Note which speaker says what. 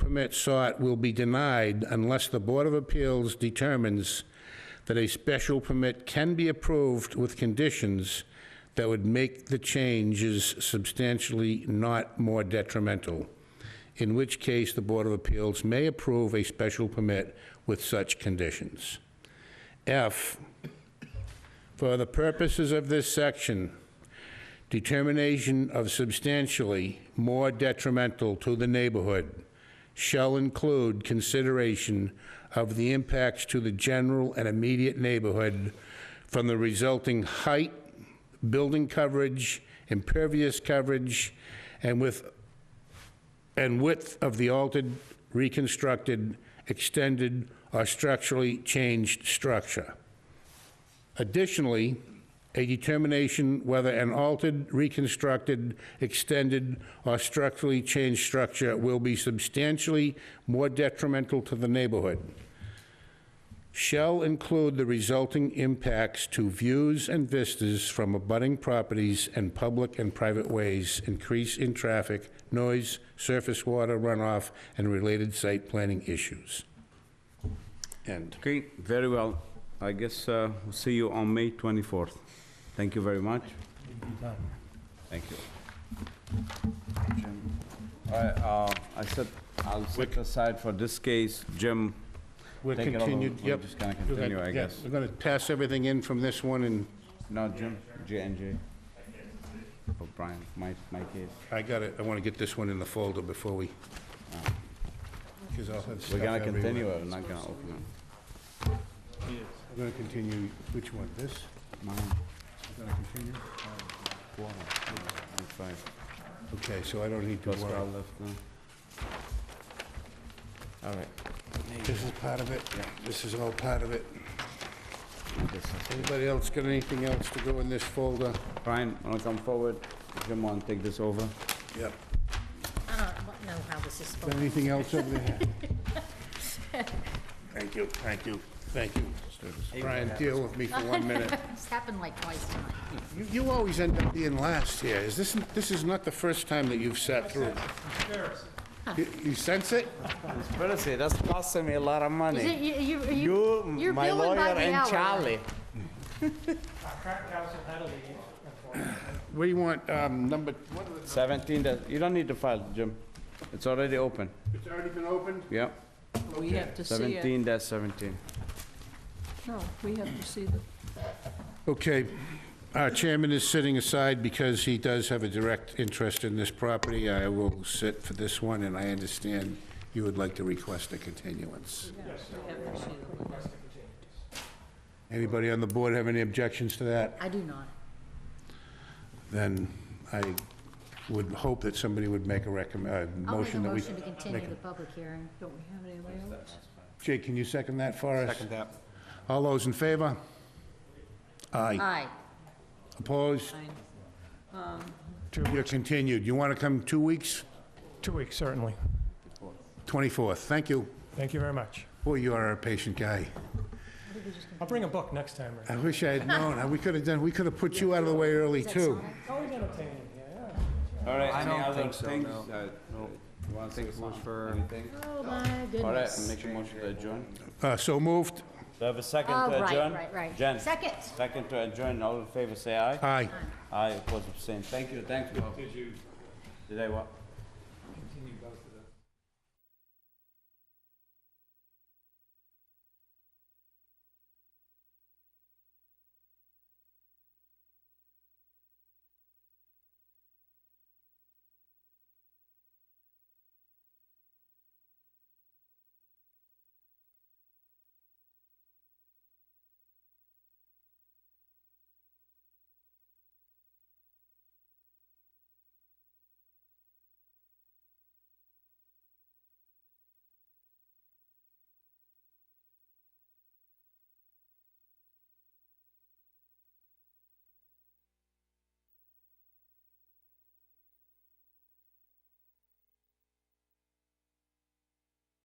Speaker 1: permit sought will be denied unless the Board of Appeals determines that a special permit can be approved with conditions that would make the changes substantially not more detrimental, in which case the Board of Appeals may approve a special permit with such conditions. F, for the purposes of this section, determination of substantially more detrimental to the neighborhood shall include consideration of the impacts to the general and immediate neighborhood from the resulting height, building coverage, impervious coverage, and with, and width of the altered, reconstructed, extended, or structurally changed structure. Additionally, a determination whether an altered, reconstructed, extended, or structurally changed structure will be substantially more detrimental to the neighborhood shall include the resulting impacts to views and vistas from abutting properties and public and private ways, increase in traffic, noise, surface water runoff, and related site planning issues. End.
Speaker 2: Okay, very well. I guess uh, we'll see you on May 24th. Thank you very much. Thank you. Jim, All right, uh, I said, I'll set aside for this case, Jim.
Speaker 1: We're
Speaker 2: take it over.
Speaker 1: continued,
Speaker 2: We're
Speaker 1: yep.
Speaker 2: just gonna
Speaker 1: We're gonna-
Speaker 2: continue, I
Speaker 1: yeah,
Speaker 2: guess.
Speaker 1: We're gonna pass everything in from this one, and
Speaker 2: No, Jim, J and J. For Brian, my, my case.
Speaker 1: I got it, I wanna get this one in the folder before we... Because I'll have stuff
Speaker 2: We're gonna
Speaker 1: everywhere.
Speaker 2: continue or not gonna open
Speaker 1: We're gonna continue, which one, this?
Speaker 2: it? Mine,
Speaker 1: We're gonna continue?
Speaker 2: four, and five.
Speaker 1: Okay, so I don't need to
Speaker 2: Pascal
Speaker 1: worry.
Speaker 2: left now. All right.
Speaker 1: This is part of it, this is all part of it. Anybody else got anything else to go in this folder?
Speaker 2: Brian, wanna come forward? Jim, wanna take this over?
Speaker 1: Yep.
Speaker 3: I don't know how this is supposed
Speaker 1: Got anything else over there? Thank you, thank you, thank you. Brian, deal with me for one minute.
Speaker 3: It's happened like twice tonight.
Speaker 1: You, you always end up being last here. Is this, this is not the first time that you've sat through. You- You sense it?
Speaker 4: Honestly, that's costing me a lot of
Speaker 3: Is it,
Speaker 4: money.
Speaker 3: you, you- you-
Speaker 4: You,
Speaker 3: you're
Speaker 4: my
Speaker 3: billing
Speaker 4: lawyer,
Speaker 3: by the
Speaker 4: and
Speaker 3: hour.
Speaker 4: Charlie.
Speaker 5: Current council had a lead, unfortunately.
Speaker 1: We want, um, number, what are
Speaker 2: 17, does- you don't need to file, Jim. It's already open.
Speaker 1: the- it's already been opened?
Speaker 2: Yep,
Speaker 6: We have to see it.
Speaker 2: 17 dash 17.
Speaker 6: No, we have to see the
Speaker 1: Okay, our chairman is sitting aside because he does have a direct interest in this property. I will sit for this one, and I understand you would like to request a continuance. Anybody on the board have any objections to that?
Speaker 3: I do not.
Speaker 1: Then I would hope that somebody would make a recommend,
Speaker 3: I'll make a
Speaker 1: motion that we...
Speaker 3: motion to continue the public hearing.
Speaker 6: Don't we have any layouts?
Speaker 1: Jay, can you second that for us? Second that. All those in favor? Aye.
Speaker 3: Aye.
Speaker 1: Opposed? Um, You're continued. You want to come two weeks?
Speaker 5: Two weeks, certainly.
Speaker 1: 24th. Thank you.
Speaker 5: Thank you very much.
Speaker 1: Boy, you are a patient guy.
Speaker 5: I'll bring a book next time, right?
Speaker 1: I wish I had known. We could have done, we could have put you out of the way early, too.
Speaker 2: All right, any
Speaker 4: don't
Speaker 2: other
Speaker 4: think so,
Speaker 2: things?
Speaker 4: no.
Speaker 2: Uh, You wanna say something? Anything?
Speaker 3: Oh, my
Speaker 2: All right,
Speaker 3: goodness.
Speaker 2: make a motion to adjourn.
Speaker 1: Uh, So moved.
Speaker 2: Do I have a second
Speaker 3: Oh,
Speaker 2: to adjourn?
Speaker 3: right, right, right.
Speaker 2: uh, Jen,
Speaker 3: Second.
Speaker 2: second to adjourn, all in favor, say aye.
Speaker 1: Aye.
Speaker 2: Aye, opposed, abstained. Thank you, thanks, Bob. Did you? Did I what?